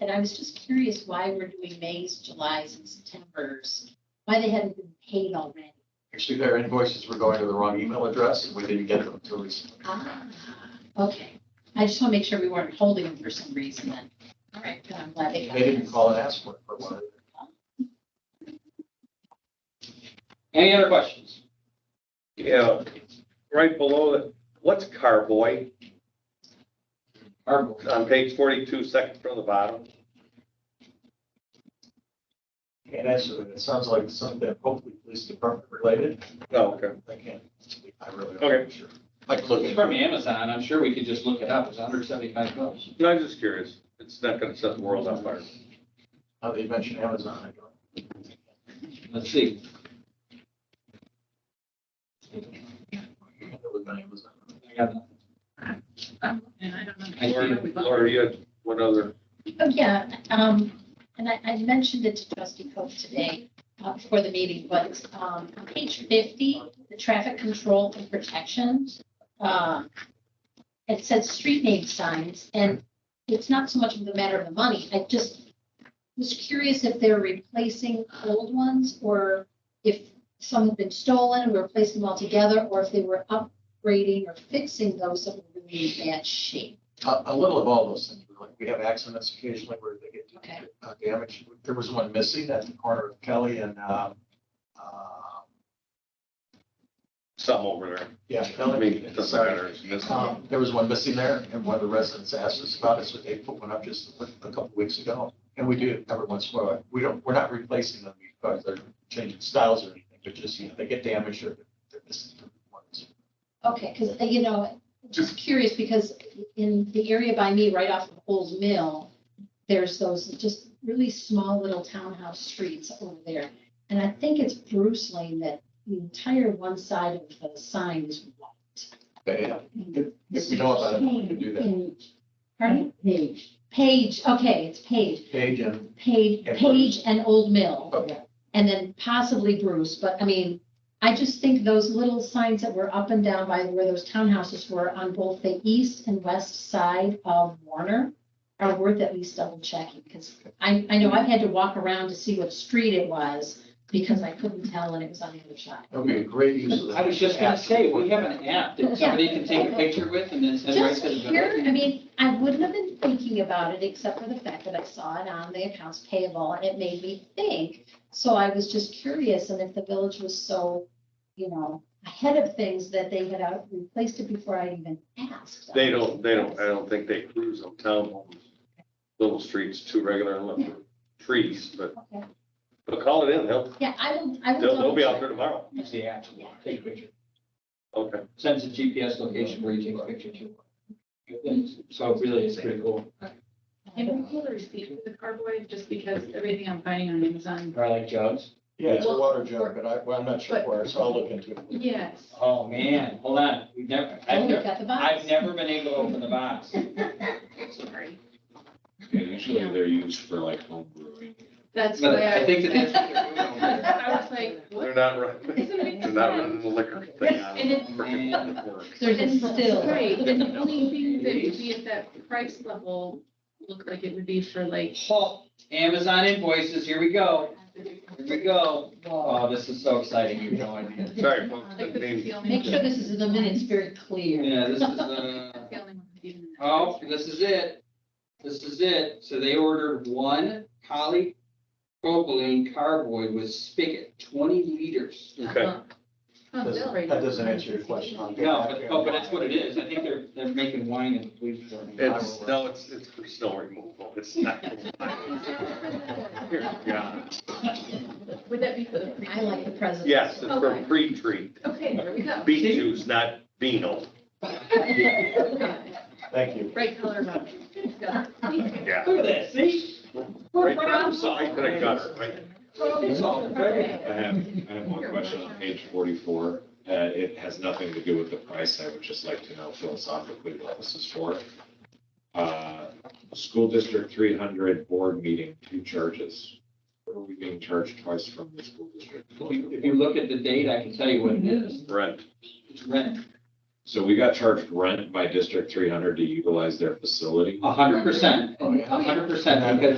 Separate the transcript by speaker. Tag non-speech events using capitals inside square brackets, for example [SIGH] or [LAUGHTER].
Speaker 1: And I was just curious why we're doing Mays, Julys, and Septembers, why they hadn't been paid already.
Speaker 2: Actually, their invoices were going to the wrong email address, and we didn't get them until recently.
Speaker 1: Ah, Okay, I just want to make sure we weren't holding them for some reason then. All right, good, I'm glad
Speaker 2: They
Speaker 1: they got
Speaker 2: didn't
Speaker 1: this.
Speaker 2: call and ask for it for one.
Speaker 3: Any other questions?
Speaker 4: Yeah, right below it, what's carboy?
Speaker 3: Or-
Speaker 4: On page forty-two, second from the bottom.
Speaker 2: And actually, it sounds like something hopefully police department related.
Speaker 4: No, okay.
Speaker 2: I can't, I really
Speaker 4: Okay.
Speaker 2: don't, sure. Like, look,
Speaker 3: It's from Amazon, I'm sure we could just look it up, it's hundred seventy-five bucks.
Speaker 4: No, I'm just curious. It's not gonna set the world on fire.
Speaker 2: now that you mentioned Amazon, I don't.
Speaker 3: Let's see,
Speaker 2: It was not Amazon.
Speaker 3: I got that. I
Speaker 4: Laura,
Speaker 3: see.
Speaker 4: Laura, you had one other,
Speaker 1: Oh, yeah, um, and I, I mentioned it to trustee Coe today, uh, before the meeting, but, um, on page fifty, the traffic control and protections, um, it says street name signs, and it's not so much of the matter of the money, I just was curious if they're replacing old ones, or if some had been stolen, and we're replacing them all together, or if they were upgrading or fixing those that were really in bad shape.
Speaker 2: A, a little of all those things, like, we have accidents occasionally where they get
Speaker 1: Okay.
Speaker 2: uh, damaged. There was one missing at the corner of Kelly and, um, uh,
Speaker 4: something over there.
Speaker 2: yeah,
Speaker 4: I
Speaker 2: Kelly.
Speaker 4: mean, it doesn't matter. It's missing.
Speaker 2: Um, There was one missing there, and one of the residents asked us about it, so they put one up just a couple weeks ago. And we do it every once in a while. We don't, we're not replacing them because they're changing styles or anything. They're just, you know, they get damaged or they're missing ones.
Speaker 1: Okay, because, you know, just curious, because in the area by me, right off of Old Mill, there's those just really small little townhouse streets over there. And I think it's Bruce Lane that the entire one side of the sign is white.
Speaker 2: They, if we know about it, we can do that.
Speaker 1: Pardon? Page. Page, okay, it's Page,
Speaker 2: Page and,
Speaker 1: Page,
Speaker 2: And
Speaker 1: Page and Old Mill
Speaker 2: okay,
Speaker 1: and then possibly Bruce, but I mean, I just think those little signs that were up and down by where those townhouses were on both the east and west side of Warner are worth at least double checking, because I, I know I've had to walk around to see what street it was because I couldn't tell and it was on the other side.
Speaker 2: that would be a great use of that.
Speaker 3: I was just gonna say, we have an app that somebody can take a picture with and then send right
Speaker 1: Just
Speaker 3: to the.
Speaker 1: here, I mean, I wouldn't have been thinking about it except for the fact that I saw it on the accounts payable and it made me think. So I was just curious and if the village was so, you know, ahead of things that they had out- replaced it before I even asked.
Speaker 4: They don't, they don't, I don't think they cruise on townhomes, little streets too regular and look for trees, but,
Speaker 1: Okay.
Speaker 4: but call it in. They'll,
Speaker 1: Yeah, I will, I will.
Speaker 4: they'll, they'll be out there
Speaker 1: double
Speaker 4: tomorrow.
Speaker 3: Use the app, to take a picture,
Speaker 4: Okay.
Speaker 3: sends a GPS location where you take a picture to. So really, it's pretty cool.
Speaker 1: check.
Speaker 5: I don't feel the receipt for the carboy, just because everything I'm finding on Amazon.
Speaker 3: Or like jugs.
Speaker 2: Yeah, it's a water jug, but I, well, I'm not sure where, so I'll look into it.
Speaker 5: Yes.
Speaker 3: Oh, man, hold on, we've never,
Speaker 1: Oh,
Speaker 3: I've
Speaker 1: we've
Speaker 3: never,
Speaker 1: got the box.
Speaker 3: I've never been able to open the box.
Speaker 5: Sorry.
Speaker 6: Yeah, usually they're used for like home brewing.
Speaker 5: That's
Speaker 3: But
Speaker 5: why I.
Speaker 3: I think that that's what they're doing over there.
Speaker 5: I was like, what?
Speaker 4: They're not running,
Speaker 5: Doesn't make
Speaker 4: they're not
Speaker 5: sense.
Speaker 4: running the liquor thing out.
Speaker 5: And it's-
Speaker 1: [LAUGHS] There's a still.
Speaker 5: Right, and the only thing that would be at that price level, look like it would be for like.
Speaker 3: Oh, Amazon invoices, here we go, here we go.
Speaker 1: Whoa.
Speaker 4: Uh,
Speaker 3: Oh, this is so exciting, you have no idea.
Speaker 4: Sorry, folks,
Speaker 5: Like
Speaker 4: didn't
Speaker 5: this is
Speaker 4: mean-
Speaker 5: the only.
Speaker 1: Make sure this is in the minutes very clear.
Speaker 3: Yeah, this is, uh,
Speaker 5: That's the only one that even-
Speaker 3: oh, this is it. This is it. So they ordered one poly propylene carboy with spigot, twenty liters.
Speaker 5: [LAUGHS]
Speaker 4: okay.
Speaker 5: Oh, Bill, right.
Speaker 2: That doesn't answer your
Speaker 5: [LAUGHS]
Speaker 2: question. I'll get
Speaker 3: No,
Speaker 2: back
Speaker 3: but,
Speaker 2: to
Speaker 3: oh,
Speaker 2: you.
Speaker 3: but that's what it is. I think they're, they're making wine and police department.
Speaker 4: It's, no, it's, it's for snow removal, it's not. [LAUGHS] Dear God.
Speaker 5: Would that be for the?
Speaker 1: [LAUGHS] I like the present. [LAUGHS]
Speaker 4: Yes, it's for
Speaker 5: Okay.
Speaker 4: pre-treat,
Speaker 5: Okay, there we go.
Speaker 4: beet juice, not vino,
Speaker 2: Thank you.
Speaker 5: Right color about it. Got
Speaker 4: [LAUGHS]
Speaker 5: it.
Speaker 4: yeah.
Speaker 3: Look at that, see? We're
Speaker 4: Right-
Speaker 3: problem
Speaker 4: Right to the
Speaker 3: solving.
Speaker 4: gutter, right?
Speaker 3: Problem solving, baby.
Speaker 6: I have, I have one question on page forty-four. Uh, it has nothing to do with the price. I would just like to know philosophically what this is for. Uh, School District three hundred board meeting, two charges. What Are we being charged twice from the school district?
Speaker 3: If you, if you look at the date, I can tell you what it is.
Speaker 4: Rent,
Speaker 3: It's rent,
Speaker 6: So we got charged rent by District three hundred to utilize their facility.
Speaker 3: a hundred percent,
Speaker 2: Oh, yeah.
Speaker 3: a hundred percent, because